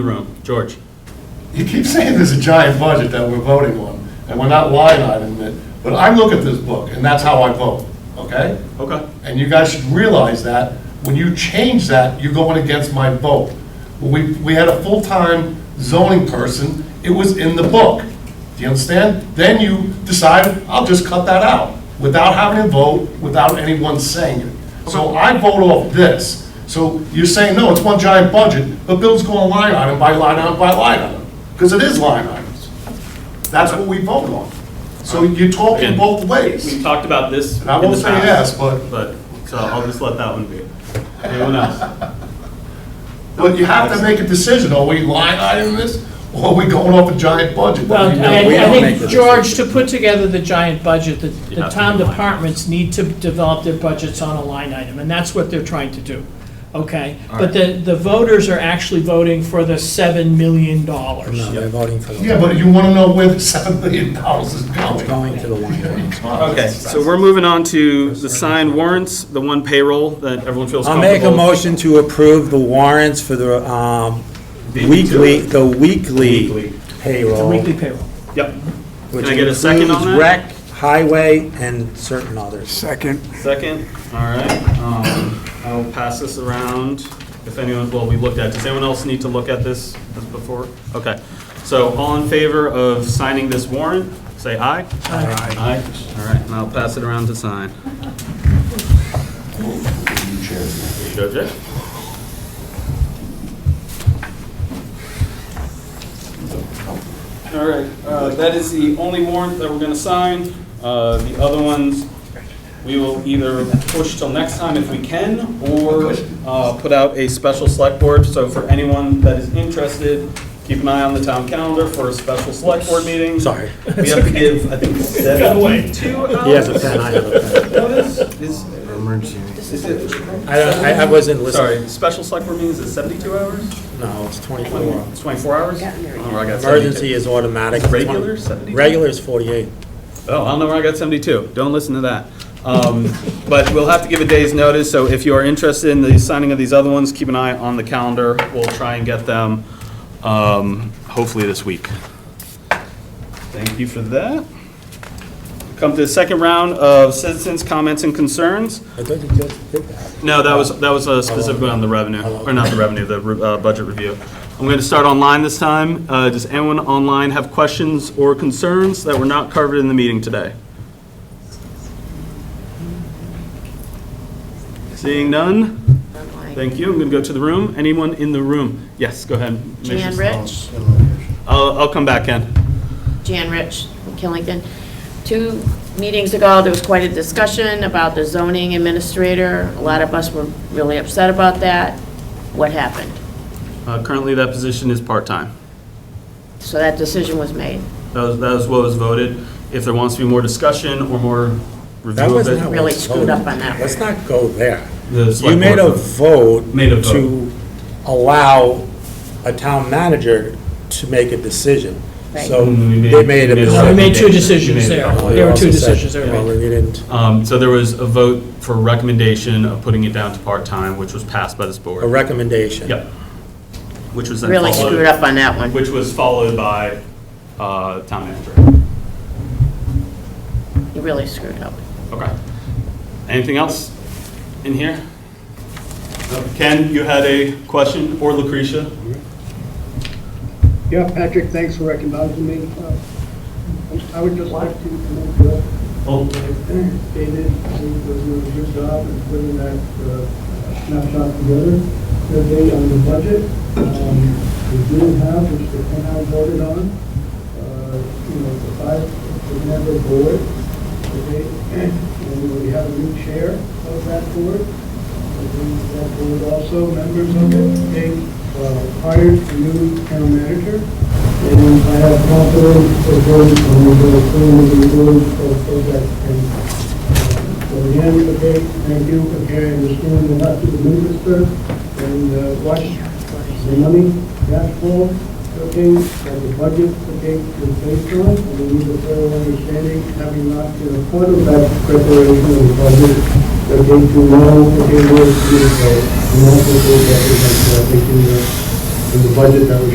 the room. George? You keep saying there's a giant budget that we're voting on, and we're not line iteming it, but I look at this book, and that's how I vote, okay? Okay. And you guys should realize that, when you change that, you're going against my vote. We, we had a full-time zoning person, it was in the book, do you understand? Then you decided, I'll just cut that out, without having a vote, without anyone saying it. So I vote off this, so you're saying, no, it's one giant budget, but Bill's going line item by line item by line item, because it is line items. That's what we vote on. So you're talking Again. both ways, We've talked about this in and I won't the say past, yes, but. but, so I'll just let that one be. Anyone else? But you have to make a decision, are we line item this, or are we going off a giant budget? Well, that we know I- we I don't make? think, George, to put together the giant budget, the You the have to town do line departments need to develop their budgets on a line item, and that's what they're trying to do, okay? But the, the voters are actually voting for the $7 million. No, they're voting for Yeah, the, but you wanna know where the seven million dollars is going. going to the line item. Okay, so we're moving on to the signed warrants, the one payroll that everyone feels I'll comfortable. make a motion to approve the warrants for the um, Beat me to weekly, it. the weekly Weekly. The payroll. weekly payroll. Yep, which Can I get a second on that? includes Rec, highway, and certain others. second, all right. um, I'll pass this around if anyone, well, we looked at, does anyone else need to look at this as before? Okay, so all in favor of signing this warrant, say aye. Aye. Aye, all right, and I'll pass it around to sign. There you go, Jay. All right, uh, that is the only warrant that we're going to sign. Uh, The other ones, we will either push till next time if we can, or uh, put out a special select board. So for anyone that is interested, keep an eye on the town calendar for a special select board meeting. Sorry. We have to give, I think, seventy-two hours. He has a pen, I have a pen. Notice, is, is it, I don't- I I wasn't listening. sorry, special select board meetings is seventy-two hours? No, it's 24. It's twenty-four hours? Oh, I got 72. Emergency is automatic. Regular, 72? Regular is 48. Oh, I don't know where I got 72. Don't listen to that. Um, But we'll have to give a day's notice, so if you are interested in the signing of these other ones, keep an eye on the calendar. We'll try and get them, um, hopefully this week. Thank you for that. Come to the second round of citizens' comments and concerns. I thought you just did that. No, that was, that was uh, specifically on the revenue, or not the revenue, the re- uh, budget review. I'm going to start online this time. Uh, Does anyone online have questions or concerns that were not covered in the meeting today? Seeing none? Thank you. I'm going to go to the room. Anyone in the room? Yes, go ahead. Jan Rich, I'll, I'll come back, Ken. Jan Rich from Killington. Two meetings ago, there was quite a discussion about the zoning administrator. A lot of us were really upset about that. What happened? Uh, Currently, that position is part-time. So that decision was made. That was, that was what was voted. If there wants to be more discussion or more That review of wasn't how it, we Really screwed up voted. on that. Let's not go there. the You select made a board- vote Made a vote. to allow a town manager to make a decision. Right. So Mm, we made- they made we made a a. vote. We made two made- you decisions made there. it. Well, you There were two also said, decisions that you were know, made. You didn't Um, So there was a vote for recommendation of putting it down to part-time, which was passed by this a board. recommendation. Yep. Which was then followed. Really screwed up on that one. Which was followed by uh, town manager. You really screwed up. Okay. Anything else in here? Uh, Ken, you had a question, or Lucretia? Yeah, Patrick, thanks for recognizing me. Uh, I would just like to commend Bill Oh, and David, I think they're doing a good job in putting that uh, snapshot together, their date on the budget. Um, We do have, which the town voted on, uh, you know, the five-member board, okay? And we have a new chair of that board. That board also, members of it, they uh, hired a new town manager. And I have confidence that those on the board, those the board, of project. And uh, so again, okay, thank you for carrying this in the left to the minister and uh, watch the money, cash flow, okay, and the budget, okay, to based on. And we need a thorough understanding, having not been a part of that preparation of the budget, that they do know, that they know, it's due, so, and also that they, that they, that they, do, uh, in the budget that was